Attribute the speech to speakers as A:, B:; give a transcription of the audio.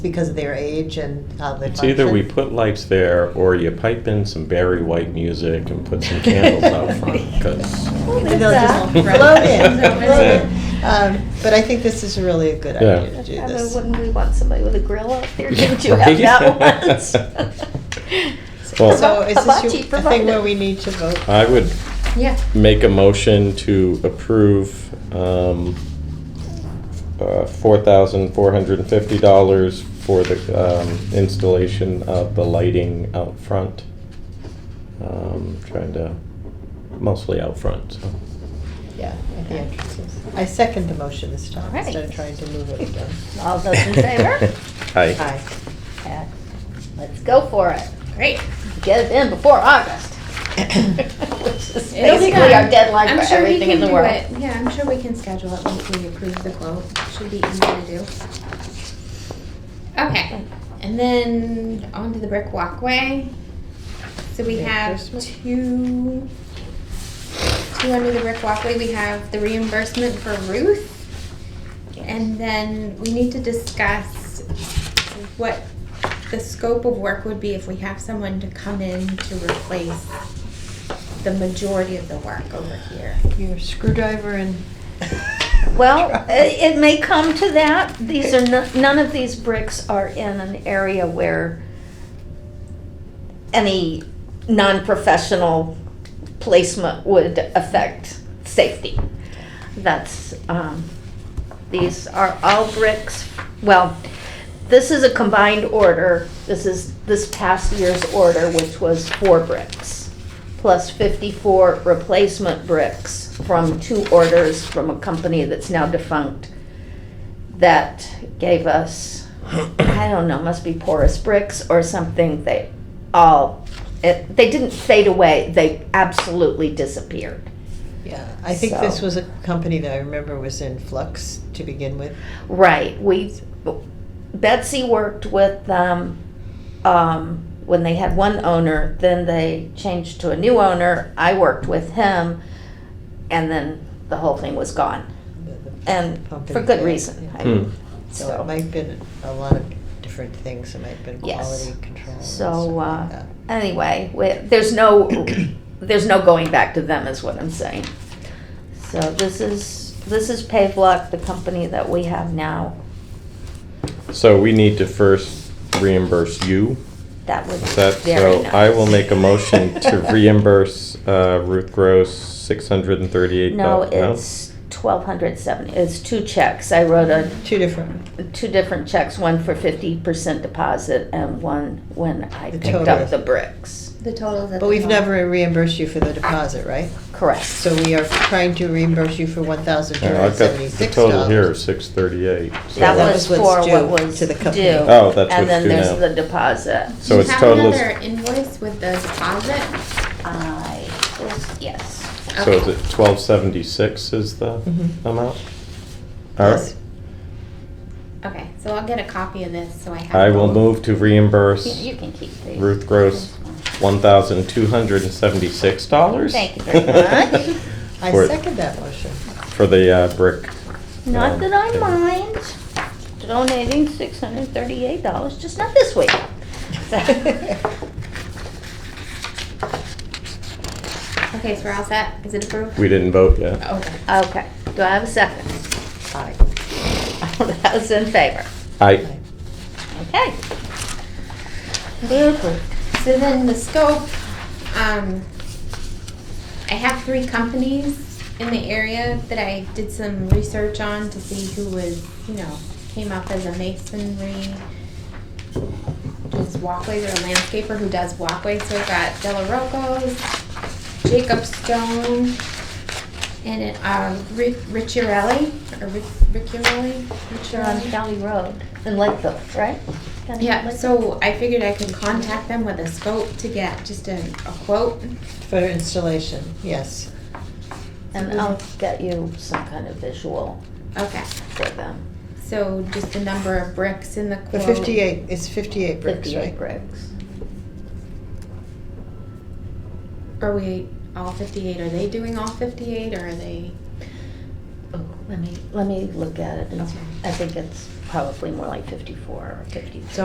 A: because of their age and how they
B: It's
A: function.
B: either we put lights there, or you pipe in some Barry White music and put some candles out front, because,
A: And they'll just
B: Right.
A: float in,
B: That's
A: float in.
B: it.
A: Um, But I think this is really a good
B: Yeah.
A: idea to do
C: I
A: this.
C: wouldn't we want somebody with a grill out there?
B: Yeah,
C: Didn't you have
B: right.
C: that once?
B: Well-
A: So is this your-
C: Hibachi
A: a thing where
C: provided.
A: we need to vote?
B: I would
C: Yeah.
B: make a motion to approve um, uh, $4,450 for the um, installation of the lighting out front. Um, Trying to, mostly out front, so.
A: Yeah, at the entrances. I second the motion this time,
C: Alright.
A: instead of trying to move it again.
C: All those in favor?
B: Aye.
A: Aye.
C: Yeah. Let's go for it. Great. Get it in before August. Which is
D: It'll be
C: basically our
D: done.
C: deadline
D: I'm
C: for
D: sure we
C: everything in
D: can
C: the
D: do
C: world.
D: it. Uh, Yeah, I'm sure we can schedule it once we approve the quote. Should be easy to do. Okay, and then onto the brick walkway. So we have
A: Reimbursement?
D: two, two under the brick walkway. We have the reimbursement for Ruth. And then we need to discuss what the scope of work would be if we have someone to come in to replace the majority of the work over here.
A: Your screwdriver and.
C: Well, i- it may come to that. These are, no- none of these bricks are in an area where any non-professional placement would affect safety. That's, um, these are all bricks, well, this is a combined order. This is this past year's order, which was four bricks, plus 54 replacement bricks from two orders from a company that's now defunct that gave us, I don't know, must be porous bricks or something. They all, it, they didn't fade away, they absolutely disappeared.
A: Yeah, I think this
C: So-
A: was a company that I remember was in flux to begin with.
C: Right. We Betsy worked with them um, when they had one owner. Then they changed to a new owner. I worked with him, and then the whole thing was gone,
A: the- the
C: and
A: pump
C: for
A: and
C: good
A: fill.
C: reason.
A: Yeah.
C: I-
B: Hmm.
A: So it
C: So,
A: might have been a lot of different things, it might have been
C: Yes.
A: quality control. and stuff
C: so
A: like
C: uh,
A: that.
C: anyway, we, there's no there's no going back to them, is what I'm saying. So this is this is Pavlock, the company that we have now.
B: So we need to first reimburse you.
C: That would be
B: That,
C: very
B: so
C: nice.
B: I will make a motion to reimburse uh, Ruth Gross six hundred and thirty-eight.
C: No, it's twelve hundred seventy, it's two checks, I wrote a,
A: Two different,
C: two different checks, one for fifty percent deposit and one when I
A: The
C: picked
A: total.
C: up the bricks.
D: The totals.
A: but we've never reimbursed you for the deposit, right?
C: Correct,
A: So we are trying to reimburse you for one thousand two
B: I've
A: hundred
B: got the
A: seventy-six dollars.
B: total here, six thirty-eight.
C: that
A: that
C: was
A: was
C: for
A: what's
C: what
A: due
C: was
A: to
C: due.
A: the company.
B: Oh, that's what's
C: And then
B: due
C: there's
B: now.
C: the deposit.
B: So it's total
D: Do you
B: is-
D: have another invoice with the deposit?
C: I, yes,
B: So is it twelve seventy-six is the
C: Mm-hmm.
A: Mhm.
B: amount? All
A: Yes.
B: right,
D: Okay, so I'll get a copy of this, so I have.
B: I will
D: both.
B: move to reimburse
C: you you can keep these.
B: Ruth Gross one thousand two hundred and seventy-six dollars.
C: Thank you very much.
A: I
B: For-
A: second that motion.
B: For the uh, brick.
C: Not
B: um,
C: that I
B: thing.
C: mind donating six hundred thirty-eight dollars, just not this week.
D: Okay, so we're all set. Is it approved?
B: We didn't vote yet.
D: Okay.
C: Okay, do I have a second?
A: Aye.
C: All those in favor?
B: I,
C: Okay. Beautiful.
D: So then the scope, um, I have three companies in the area that I did some research on to see who was, you know, came up as a masonry, does walkways or a landscaper who does walkways. So we've got Delarocos, Jacob Stone, and, um, Ri- Ricciarelli, or Ric- Ricciarelli?
C: You're on County Road in Lakeville, right? County
D: Yeah,
C: Lakeville?
D: so I figured I could contact them with a scope to get just a, a quote.
A: For installation, yes.
C: And
A: Mm-hmm.
C: I'll get you some kind of visual
D: Okay,
C: for them.
D: so just the number of bricks in the
A: The
D: quote.
A: fifty-eight, it's fifty-eight bricks,
C: Fifty-eight
A: right?
C: bricks.
D: Are we all fifty-eight? Are they doing all fifty-eight or are they?
C: Oh, Let me, let me look at it. It's-
D: Okay.
C: I think it's probably more like 54 or 53.